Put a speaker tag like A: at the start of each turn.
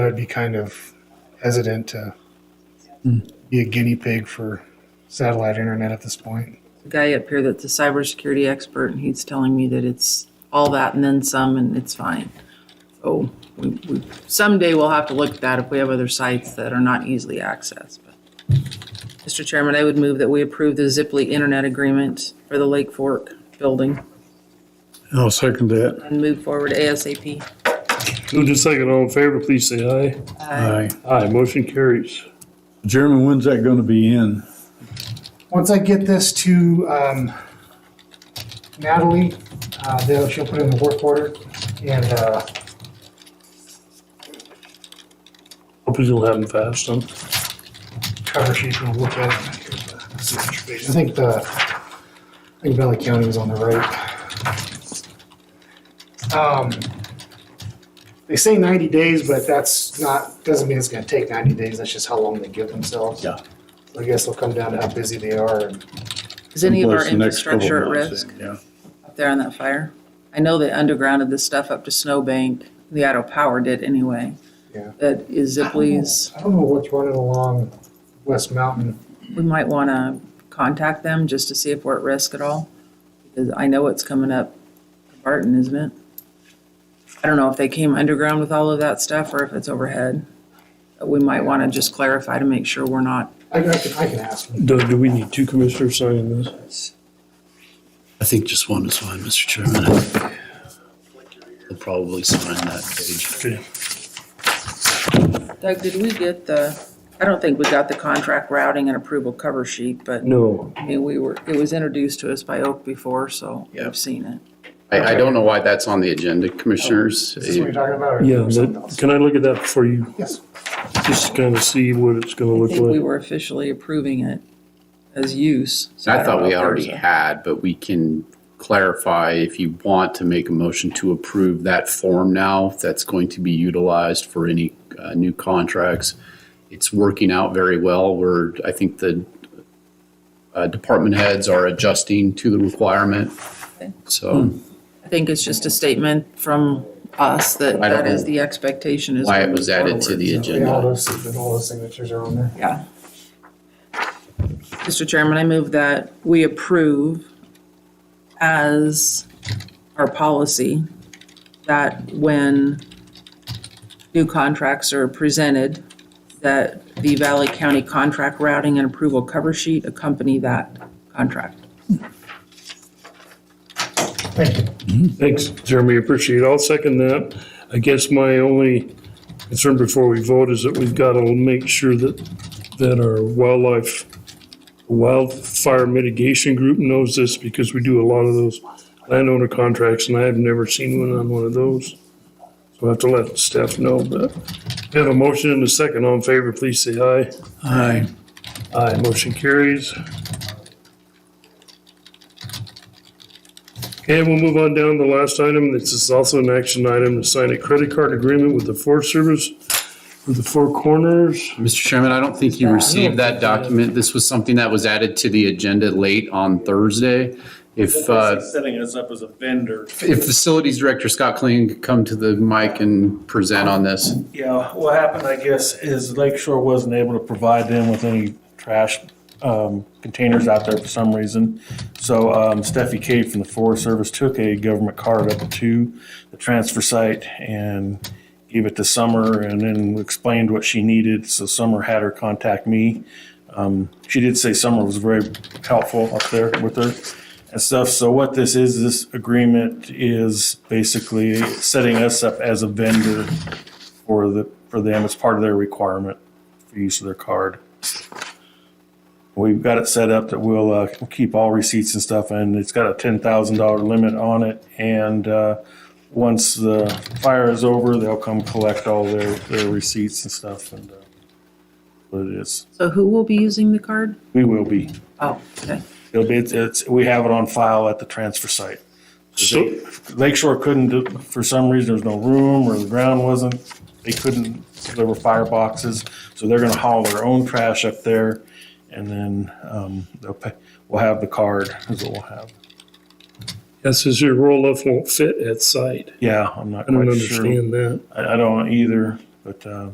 A: I'd be kind of hesitant to be a guinea pig for satellite internet at this point.
B: The guy up here that's a cybersecurity expert, and he's telling me that it's all that and then some, and it's fine. So we, we, someday we'll have to look at that if we have other sites that are not easily accessed. But, Mr. Chairman, I would move that we approve the Zipley Internet Agreement for the Lake Fork building
C: I'll second that.
B: and move forward ASAP.
D: Move to second, all in favor, please say aye.
C: Aye.
D: Aye, motion carries.
C: Jeremy, when's that gonna be in?
A: Once I get this to um, Natalie, uh, then she'll put it in the work order and uh,
D: Hope this will happen fast, huh?
A: cover sheet and we'll look at it. I think the, I think Valley County was on the right. Um, They say 90 days, but that's not, doesn't mean it's going to take 90 days. That's just how long they give themselves.
C: Yeah.
A: I guess it'll come down to how busy they are and
B: Is any of our
C: Someplace the next couple
B: infrastructure at
C: months,
B: risk
C: Yeah.
B: up there on that fire? I know they undergrounded this stuff up to Snowbank. The Idaho Power did anyway.
A: Yeah.
B: That is Zipley's.
A: I don't know what's running along West Mountain.
B: we might want to contact them just to see if we're at risk at all. Because I know it's coming up, Barton, isn't it? I don't know if they came underground with all of that stuff or if it's overhead. But We might want to just clarify to make sure we're not,
A: I I can, I can ask them.
D: Doug, do we need two commissioners signing this?
E: I think just one is fine, Mr. Chairman. We'll probably sign that page.
D: Okay.
B: Doug, did we get the, I don't think we got the contract routing and approval cover sheet, but
D: No.
B: I mean, we were, it was introduced to us by Oak before, so I've seen it.
E: I, I don't know why that's on the agenda,
A: Is
E: commissioners.
A: Oh, this what you're talking about or is
D: Yeah,
A: there something
D: that-
A: else?
D: can I look at that before you,
A: Yes.
D: just kind of see what it's gonna
B: I
D: look
B: think we
D: like?
B: were officially approving it as use. so
E: I
B: don't
E: thought
B: know if
E: we
B: there was
E: already
B: a-
E: had, but we can clarify if you want to make a motion to approve that form now that's going to be utilized for any uh, new contracts. It's working out very well. We're, I think the uh, department heads are adjusting to the requirement.
B: Okay.
E: So
B: I think it's just a statement from us that
E: I don't
B: that is
E: know
B: the expectation is.
E: why it
B: moving
E: was added to
B: forward.
E: the
A: And all
E: agenda.
A: those, and all those signatures are on there.
B: Yeah. Mr. Chairman, I move that we approve as our policy that when new contracts are presented, that the Valley County contract routing and approval cover sheet accompany that contract.
A: Thank you.
D: Thanks, Jeremy, appreciate it. I'll second that. I guess my only concern before we vote is that we've gotta make sure that, that our wildlife, wildfire mitigation group knows this because we do a lot of those landowner contracts and I have never seen one on one of those. So I have to let staff know, but we have a motion and a second. All in favor, please say aye.
C: Aye.
D: Aye, motion carries. Okay, we'll move on down to the last item. This is also an action item to sign a credit card agreement with the Forest Service for the Four Corners.
E: Mr. Chairman, I don't think you received that document. This was something that was added to the agenda late on Thursday. If, uh,
F: Basically setting us up as a vendor.
E: if Facilities Director Scott Kling could come to the mic and present on this.
F: Yeah, what happened, I guess, is Lake Shore wasn't able to provide them with any trash um, containers out there for some reason. So um, Steffi Cade from the Forest Service took a government card up to the transfer site and gave it to Summer and then explained what she needed. So Summer had her contact me. Um, She did say Summer was very helpful up there with her and stuff. So what this is, this agreement is basically setting us up as a vendor for the, for them, it's part of their requirement for use of their card. We've got it set up that we'll, uh, keep all receipts and stuff, and it's got a ten thousand dollar limit on it, and, uh, once the fire is over, they'll come collect all their, their receipts and stuff, and, uh, what it is,
B: So who will be using the card?
F: we will be,
B: Oh, okay.
F: it'll be, it's- it's, we have it on file at the transfer site.
D: So,
F: Lakeshore couldn't, do for some reason, there was no room or the ground wasn't, they couldn't deliver fireboxes. So they're gonna haul their own trash up there and then, um, they'll pay, we'll have the card is what we'll have.
D: that says your roll-off won't fit at site.
F: Yeah, I'm not
D: I don't
F: quite sure.
D: understand that.
F: I, I don't either, but, uh,